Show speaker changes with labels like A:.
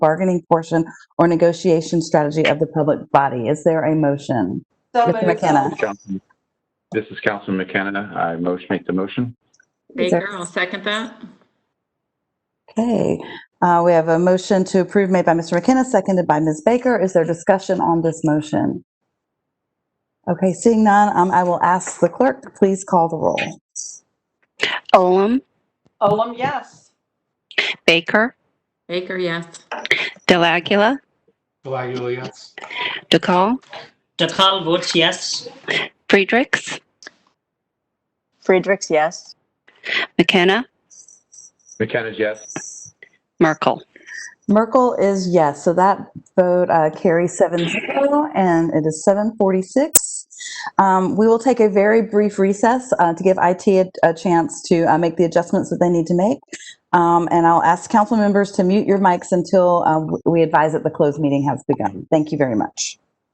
A: bargaining portion or negotiation strategy of the public body. Is there a motion?
B: So
A: Mr.
B: moved.
A: McKenna.
C: Councilman- This is Councilman McKenna. I motion, make the motion.
D: Baker, I'll second that.
A: Okay, uh, we have a motion to approve made by Mr. McKenna, seconded by Ms. Baker. Is there discussion on this motion? Okay, seeing none, um, I will ask the clerk, to please call the roll.
E: Olem,
B: Olem, yes.
E: Baker,
D: Baker, yes.
E: Delagula,
F: Delagula, yes.
E: DeCall,
G: Dakal votes yes.
E: Friedrichs,
B: Friedrichs, yes.
E: McKenna,
C: McKenna, yes.
E: Merkel.
A: Merkel is yes, so that vote uh, carries seven zero, and it is seven forty-six. Um, we will take a very brief recess uh, to give IT a, a chance to uh, make the adjustments that they need to make. Um, and I'll ask council members to mute your mics until uh, we advise that the closed meeting has begun. Thank you very much.